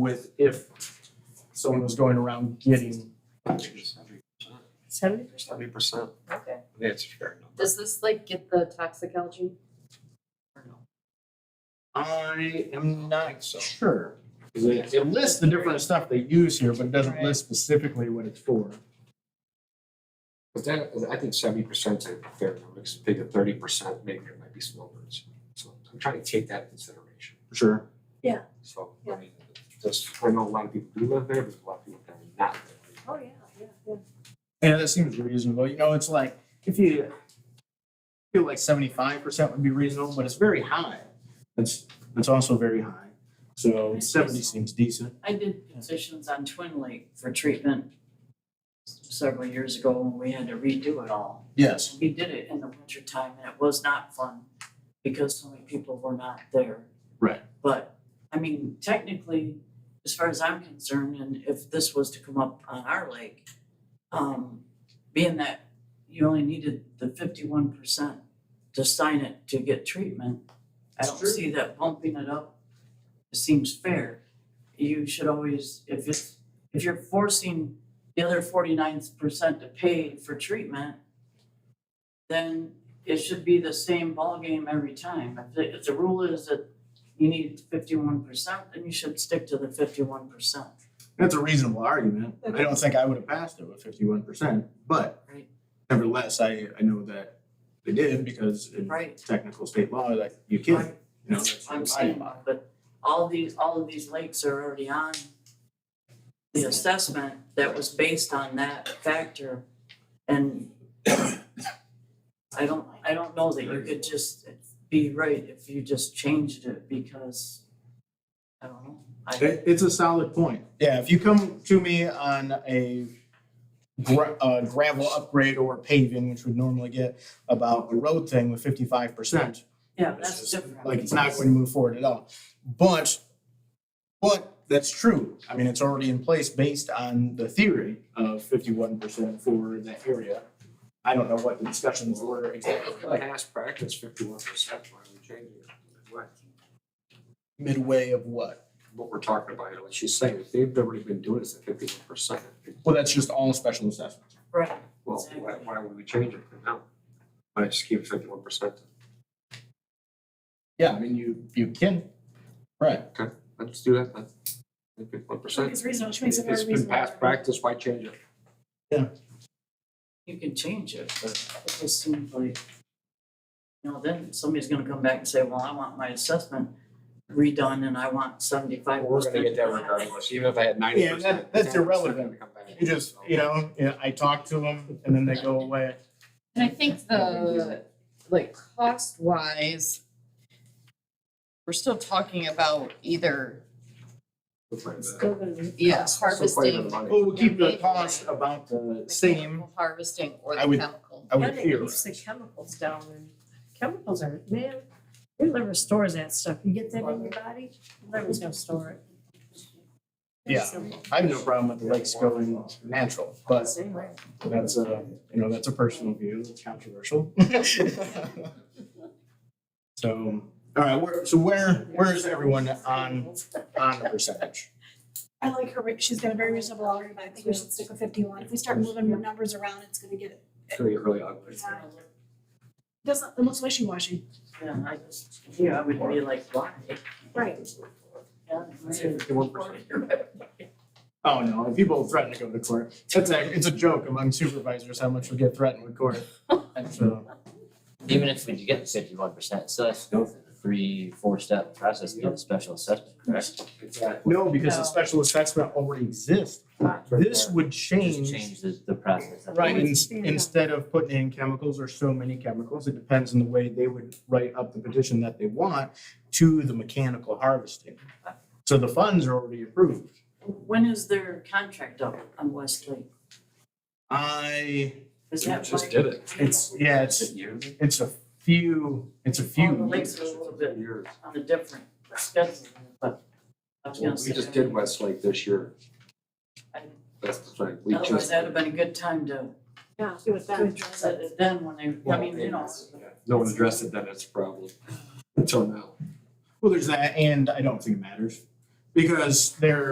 with if someone was going around getting. Seventy percent, Seventy percent, okay. I think it's fair. Does this like get the toxic algae? Or no? I am not sure. 'Cause It it lists the different stuff they use here, but it doesn't list specifically what it's for. But that, I think seventy percent is a fair number, because bigger thirty percent, maybe it might be snowbirds. So I'm trying to take that into consideration, Sure. so, Yeah. I mean, just, I know a lot of people do live there, but a lot of people that are not there. Oh, yeah, yeah, yeah. Yeah, that seems reasonable. You know, it's like if you feel like seventy-five percent would be reasonable, but it's very high. That's that's also very high. So seventy seems decent. I did positions on Twin Lake for treatment several years ago when we had to redo it all. Yes. We did it in the winter time and it was not fun because so many people were not there. Right. But, I mean, technically, as far as I'm concerned, and if this was to come up on our lake, um, being that you only needed the fifty-one percent to sign it to get treatment, I That's don't true. see that bumping it up seems fair. You should always, if it's, if you're forcing the other forty-nine percent to pay for treatment, then it should be the same ballgame every time. If the, if the rule is that you need fifty-one percent, then you should stick to the fifty-one percent. That's a reasonable argument. I don't think I would have passed it with fifty-one percent, but Right. nevertheless, I I know that they did because in Right. technical state law, like you can't, you know, that's I'm your saying, bylaw. but all these, all of these lakes are already on the assessment that was based on that factor and I don't, I don't know that you could just be right if you just changed it because I don't know. I, It, it's a solid point. Yeah, if you come to me on a gra- uh, gravel upgrade or paving, which would normally get about a road thing with fifty-five percent, yeah, that's different. like it's not going to move forward at all. But, but that's true. I mean, it's already in place based on the theory of fifty-one percent for that area. I don't know what the discussions were exactly like Past practice, fifty-one percent, why are we changing it? Why? midway of what. What we're talking about, like she's saying, if they've already been doing this at fifty-one percent, Well, that's just all special assessments. Right, well, why, why would we change it now? Why just keep fifty-one percent? Yeah, I mean, you, you can, right. Let's do that, then. Fifty-one percent. It's reasonable, which makes it more If reasonable. It's been past practice, why change it? you can change it, but it just seems like, you know, then somebody's gonna come back and say, well, I want my assessment redone and I want seventy-five percent. We're gonna get that regardless, even if I had ninety Yeah, percent. that- that's irrelevant. You just, you know, yeah, I talk to them and then they go away. And I think the, like, cost wise, we're still talking about either, yeah, harvesting. Well, we'll keep the cost about the same, mechanical Harvesting or I the would- chemical. I Yeah, would they fear. keeps the chemicals down and chemicals are, man, your liver stores that stuff. You get that in your body, your liver's gonna store it. Yeah. I have no problem with the lakes going natural, but Anyway, that's a, you know, that's a personal view, it's controversial. So, all right, where, so where, where is everyone on, on the percentage? I like her, re- she's got a very reasonable argument, I think we should stick with fifty-one, if we start moving the numbers around, it's gonna get, It's gonna get really ugly. It's gonna look- doesn't, it looks wishy-washy. Yeah, I just, yeah, I would be like, why? Right. Yeah. Fifty-one percent. Oh, no, and people threaten to go to court. It's a, it's a joke among supervisors how much we get threatened with court. And so, Even if we do get the fifty-one percent, still has to go through the three, four-step process to get the special assessment, correct? Exactly. no, because the No. special assessment already exists. This would Just change the, the process. Right, Well, in- it's fair. instead of putting in chemicals or so many chemicals, it depends on the way they would write up the petition that they want to the mechanical harvesting. So the funds are already approved. When is their contract up on Westlake? I, Is that Just like- did it. it's, yeah, it's, Years. it's a few, it's a Oh, the few. lake- Makes it a little bit- Years. On a different schedule, but I was Well, gonna We say. just did Westlake this year. I- That's the thing, we just. Otherwise, that'd have been a good time to, Yeah, do it that. set it then when they, I Well, mean, you know. it's- yeah, No one addressed it, then it's a problem, until now. Well, there's that, and I don't think it matters because they're